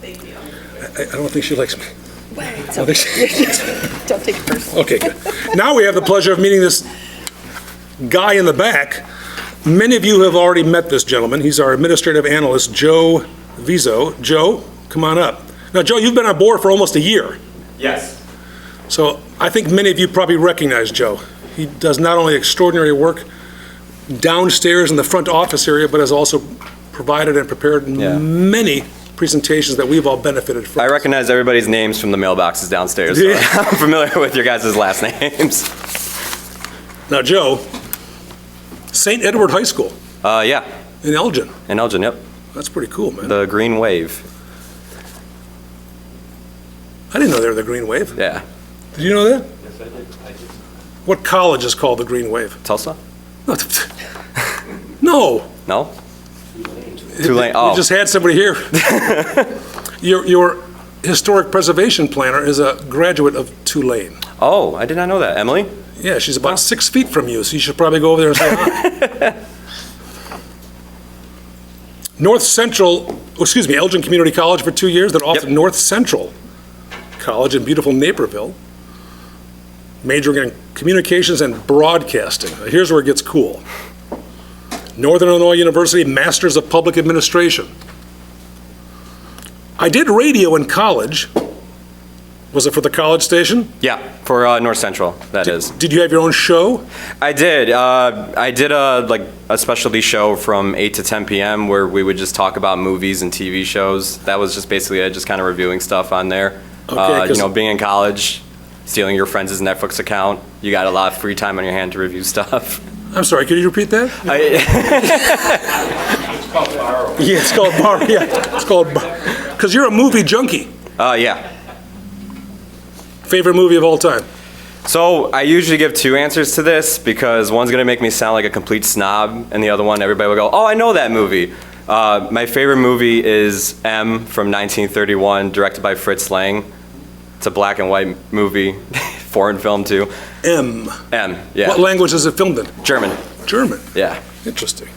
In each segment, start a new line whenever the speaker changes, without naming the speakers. Thank you.
I, I don't think she likes me.
It's
I don't think she-
okay. Don't take it personally.
Okay, good. Now we have the pleasure of meeting this guy in the back. Many of you have already met this gentleman. He's our administrative analyst, Joe Vizo. Joe, come on up. Now, Joe, you've been on board for almost a year,
Yes.
so I think many of you probably recognize Joe. He does not only extraordinary work downstairs in the front office area, but has also provided and prepared
Yeah.
many presentations that we've all benefited from.
I recognize everybody's names from the mailboxes downstairs. So
Yeah.
I'm familiar with your guys' last names.
Now, Joe, St. Edward High School
Uh, yeah,
in Elgin.
and Elgin, yep.
That's pretty cool, man.
The Green Wave.
I didn't know they were the Green Wave.
Yeah.
Did you know that? What college is called the Green Wave?
Tulsa?
No, No.
No? Tulane.
We
Oh,
just had somebody here. Your, your historic preservation planner is a graduate of Tulane.
oh, I did not know that. Emily?
Yeah, she's about six feet from you, so you should probably go over there and say hi. North Central, oh, excuse me, Elgin Community College for two years, then off to
Yep.
North Central College in beautiful Naperville, majoring in communications and broadcasting. Now, Here's where it gets cool. Northern Illinois University, Masters of Public Administration. I did radio in college. Was it for the college station?
Yeah, for uh, North Central, that is.
Did you have your own show?
I did. Uh, I did a like a specialty show from 8 to 10 p.m. where we would just talk about movies and TV shows. That was just basically it, just kind of reviewing stuff on there.
Okay,
uh, you
'cause-
know, being in college, stealing your friends' Netflix account, you got a lot of free time on your hand to review stuff.
I'm sorry, could you repeat that?
I,
Yeah, it's called bar, yeah, it's called bar. Because you're a movie junkie.
uh, yeah.
Favorite movie of all time?
So I usually give two answers to this because one's gonna make me sound like a complete snob, and the other one everybody will go, "Oh, I know that movie." Uh, my favorite movie is M from 1931, directed by Fritz Lang. It's a black and white movie, foreign film too.
M.
M, yeah,
What language is it filmed in?
German,
German.
yeah.
Interesting.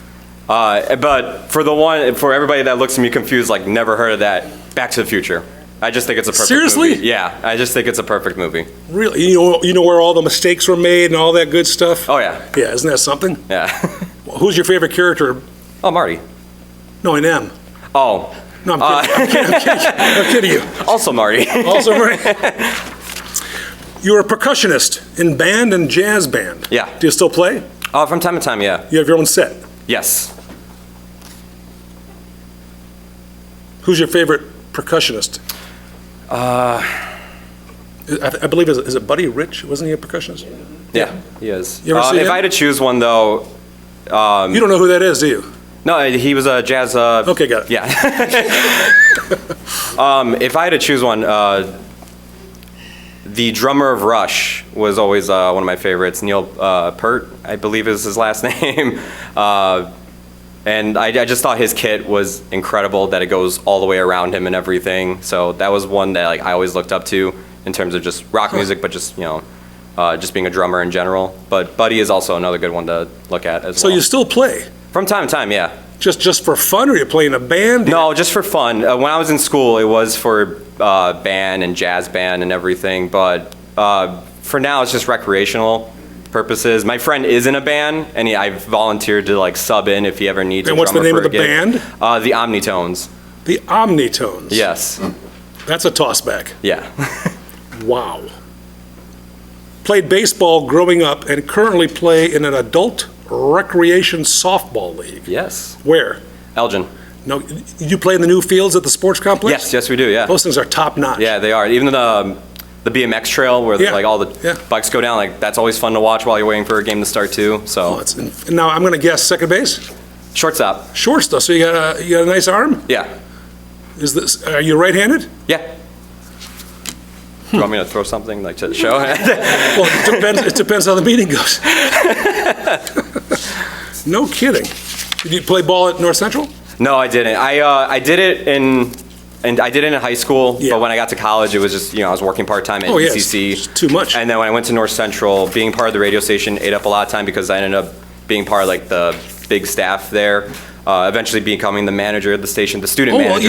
Uh, but for the one, for everybody that looks at me confused, like never heard of that, Back to the Future. I just think it's a perfect
Seriously?
movie. Yeah, I just think it's a perfect movie.
Really, you know, you know where all the mistakes were made and all that good stuff?
Oh yeah,
Yeah, isn't that something?
yeah.
Who's your favorite character?
oh Marty.
No, in M.
Oh,
No, I'm kidding. I'm kidding, I'm kidding, I'm kidding you.
also Marty.
Also, you were a percussionist in band and jazz band.
Yeah.
Do you still play?
Oh, from time to time, yeah.
You have your own set.
Yes.
Who's your favorite percussionist? Uh, I, th- I believe is, is it Buddy Rich? Wasn't he a percussionist?
Yeah, he is.
You ever
Uh,
see
if
him?
I had to choose one, though, Um,
you don't know who that is, do you?
no, he was a jazz. Uh,
Okay, got it.
Yeah. um, if I had to choose one, uh, the drummer of Rush was always uh, one of my favorites. Neil uh, Pert, I believe, is his last name. Uh, and I, I just thought his kit was incredible. That it goes all the way around him and everything. So that was one that like I always looked up to in terms of just rock music, but just you know. Uh, just being a drummer in general, but Buddy is also another good one to look at as
So
well.
you still play,
From time to time, yeah.
just just for fun, or you play in a band?
No, just for fun. Uh, when I was in school, it was for uh, band and jazz band and everything. But uh, for now, it's just recreational purposes. My friend is in a band, and he, I volunteered to like sub in if he ever needs.
And
a
what's the name
drummer for
of the
a gig.
band?
Uh, the Omnitones.
The Omnitones.
Yes.
That's a tossback.
Yeah.
Wow. Played baseball growing up, and currently play in an adult recreation softball league.
yes.
Where?
Elgin.
No, you play in the new fields at the sports complex.
Yes. Yes, we do. Yeah.
Those things are top notch.
Yeah, they are. Even the um, the BMX trail where
Yeah,
like all the
yeah.
bikes go down, like that's always fun to watch while you're waiting for a game to start too.
Oh,
So
it's in- now I'm going to guess second base.
shortstop.
Shorts though, so you got a you got a nice arm.
Yeah.
Is this are you right-handed?
Yeah. Do you want me to throw something like to show?
Well, it depends. it depends how the meeting goes. no kidding. Did you play ball at North Central?
no, I didn't. I uh, I did it in, and I did it in high school.
Yeah.
But when I got to college, it was just you know I was working part time at
Oh, yeah, it's
ECC.
just too much.
And then when I went to North Central, being part of the radio station ate up a lot of time because I ended up being part of like the big staff there. Uh, eventually becoming the manager of the station, the student
Oh, well,
manager.